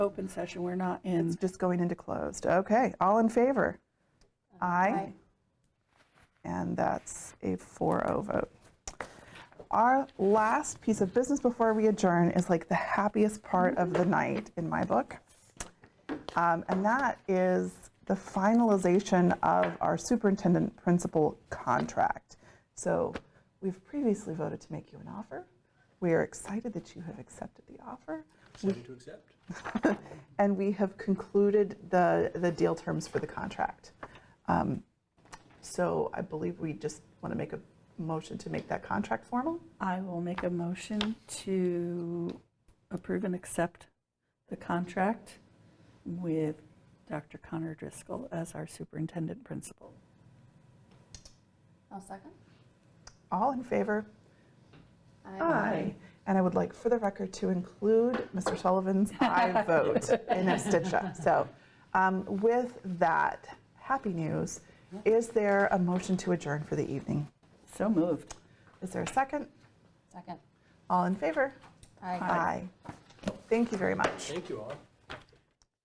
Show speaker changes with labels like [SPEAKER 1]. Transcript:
[SPEAKER 1] open session, we're not in.
[SPEAKER 2] It's just going into closed. Okay, all in favor? Aye.
[SPEAKER 1] Aye.
[SPEAKER 2] And that's a 4-0 vote. Our last piece of business before we adjourn is like the happiest part of the night in my book. Um, And that is the finalization of our superintendent principal contract. So we've previously voted to make you an offer. We are excited that you have accepted the offer.
[SPEAKER 3] Decided to accept.
[SPEAKER 2] And we have concluded the, the deal terms for the contract. Um, So I believe we just want to make a motion to make that contract formal.
[SPEAKER 1] I will make a motion to approve and accept the contract with Dr. Connor Driscoll as our superintendent principal.
[SPEAKER 4] I'll second.
[SPEAKER 2] All in favor?
[SPEAKER 4] I
[SPEAKER 2] And I would like, for the record, to include Mr. Sullivan's aye vote in abstention. So um, with that, happy news. Is there a motion to adjourn for the evening?
[SPEAKER 1] So moved.
[SPEAKER 2] Is there a second?
[SPEAKER 4] Second.
[SPEAKER 2] All in favor?
[SPEAKER 4] I.
[SPEAKER 2] Aye. Thank you very much.
[SPEAKER 3] Thank you all.